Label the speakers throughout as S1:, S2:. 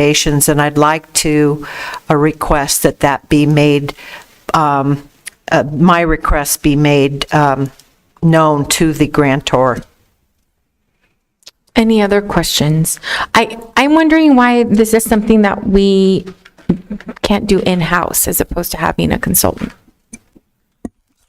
S1: recommendations, and I'd like to uh, request that that be made, um, uh, my request be made um, known to the grantor.
S2: Any other questions? I, I'm wondering why this is something that we can't do in-house as opposed to having a consultant.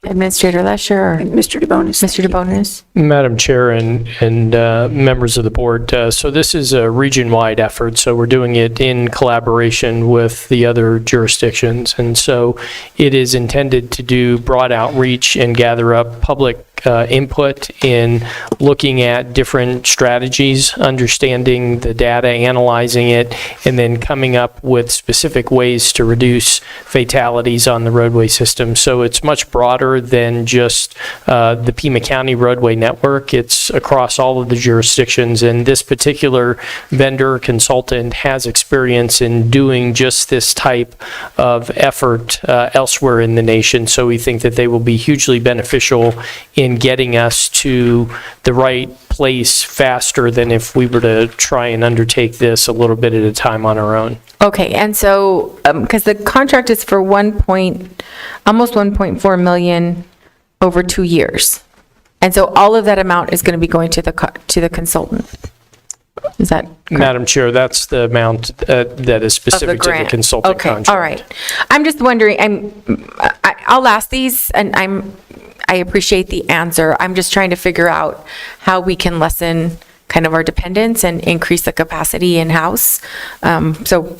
S2: Administrator Lesher or
S3: Mr. DeBonis.
S2: Mr. DeBonis?
S4: Madam Chair and, and uh, members of the board, uh, so this is a region-wide effort, so we're doing it in collaboration with the other jurisdictions. And so it is intended to do broad outreach and gather up public uh, input in looking at different strategies, understanding the data, analyzing it, and then coming up with specific ways to reduce fatalities on the roadway system. So it's much broader than just uh, the Pima County roadway network. It's across all of the jurisdictions, and this particular vendor consultant has experience in doing just this type of effort uh, elsewhere in the nation. So we think that they will be hugely beneficial in getting us to the right place faster than if we were to try and undertake this a little bit at a time on our own.
S2: Okay, and so, because the contract is for 1 point, almost 1.4 million over two years. And so all of that amount is going to be going to the, co- to the consultant. Is that
S4: Madam Chair, that's the amount uh, that is
S2: of the
S4: specific to the
S2: grant.
S4: consultant contract.
S2: Okay, all right. I'm just wondering, I'm, I- I'll ask these, and I'm, I appreciate the answer. I'm just trying to figure out how we can lessen kind of our dependence and increase the capacity in-house. Um, So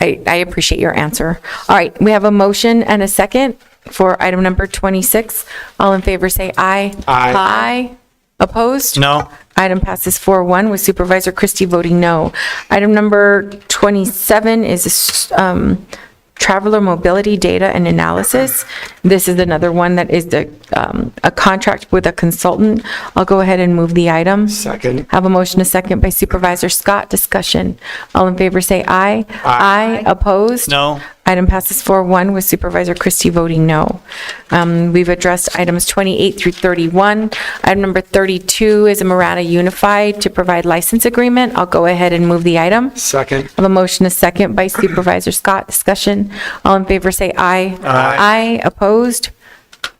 S2: I, I appreciate your answer. All right, we have a motion and a second for item number 26. All in favor, say aye. Aye. Aye. Opposed?
S5: No.
S2: Item passes 4-1 with Supervisor Christie voting no. Item number 27 is um, traveler mobility data and analysis. This is another one that is the, um, a contract with a consultant. I'll go ahead and move the item. Second. Have a motion, a second by Supervisor Scott. Discussion. All in favor, say aye. Aye. Opposed?
S5: No.
S2: Item passes 4-1 with Supervisor Christie voting no. Um, We've addressed items 28 through 31. Item number 32 is a Marana Unified to provide license agreement. I'll go ahead and move the item.
S6: Second.
S2: I have a motion, a second by Supervisor Scott. Discussion. All in favor, say aye. Aye. Opposed?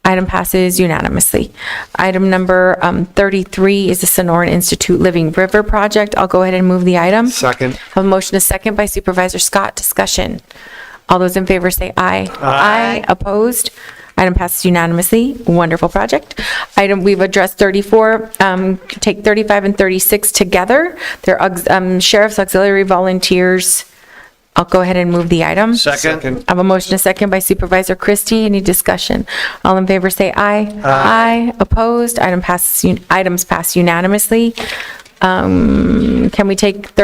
S2: Item passes unanimously. Item number um, 33 is the Sonoran Institute Living River Project. I'll go ahead and move the item.
S6: Second.
S2: Have a motion, a second by Supervisor Scott. Discussion. All those in favor say aye. Aye. Opposed? Item passes unanimously. Wonderful project. Item, we've addressed 34, um, take 35 and 36 together. They're aux- um, sheriff's auxiliary volunteers. I'll go ahead and move the item.
S6: Second.
S2: I have a motion, a second by Supervisor Christie. Any discussion? All in favor, say aye. Aye. Opposed? Item passes, un- items pass unanimously. Um, Can we take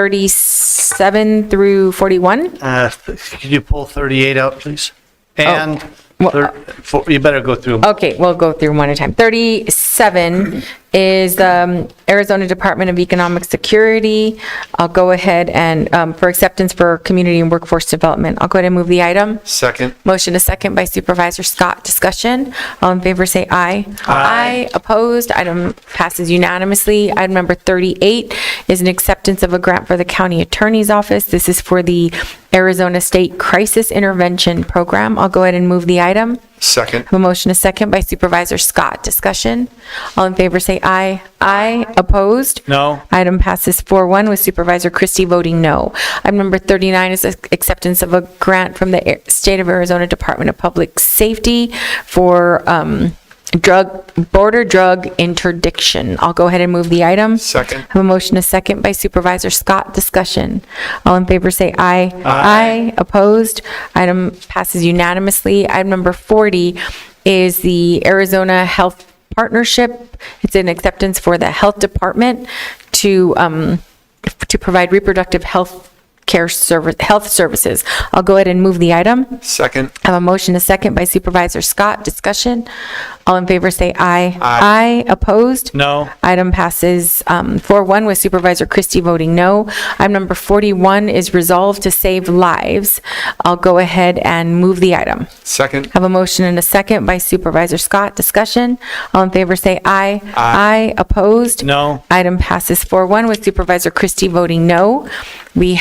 S2: 37 through 41?
S5: Uh, Could you pull 38 out, please? And,
S2: Well,
S5: thir- four- you better go through 'em.
S2: Okay, we'll go through one at a time. 37 is um, Arizona Department of Economic Security. I'll go ahead and, um, for acceptance for community and workforce development, I'll go ahead and move the item.
S6: Second.
S2: Motion a second by Supervisor Scott. Discussion. All in favor say aye. Aye. Opposed. Item passes unanimously. Item number 38 is an acceptance of a grant for the county attorney's office. This is for the Arizona State Crisis Intervention Program. I'll go ahead and move the item.
S6: Second.
S2: Have a motion a second by Supervisor Scott. Discussion. All in favor say aye. Aye. Opposed.
S5: No.
S2: Item passes 4-1 with Supervisor Christie voting no. Item number 39 is acceptance of a grant from the Air- State of Arizona Department of Public Safety for um, drug, border drug interdiction. I'll go ahead and move the item.
S6: Second.
S2: Have a motion, a second by Supervisor Scott. Discussion. All in favor say aye. Aye. Opposed? Item passes unanimously. Item number 40 is the Arizona Health Partnership. It's an acceptance for the Health Department to, um, to provide reproductive health care service, health services. I'll go ahead and move the item.
S6: Second.
S2: I have a motion, a second by Supervisor Scott. Discussion. All in favor say aye. Aye. Opposed?
S5: No.
S2: Item passes um, 4-1 with Supervisor Christie voting no. Item number 41 is resolved to save lives. I'll go ahead and move the item.
S6: Second.
S2: Have a motion and a second by Supervisor Scott. Discussion. All in favor say aye. Aye. Opposed?
S5: No.
S2: Item passes 4-1 with Supervisor Christie voting no. We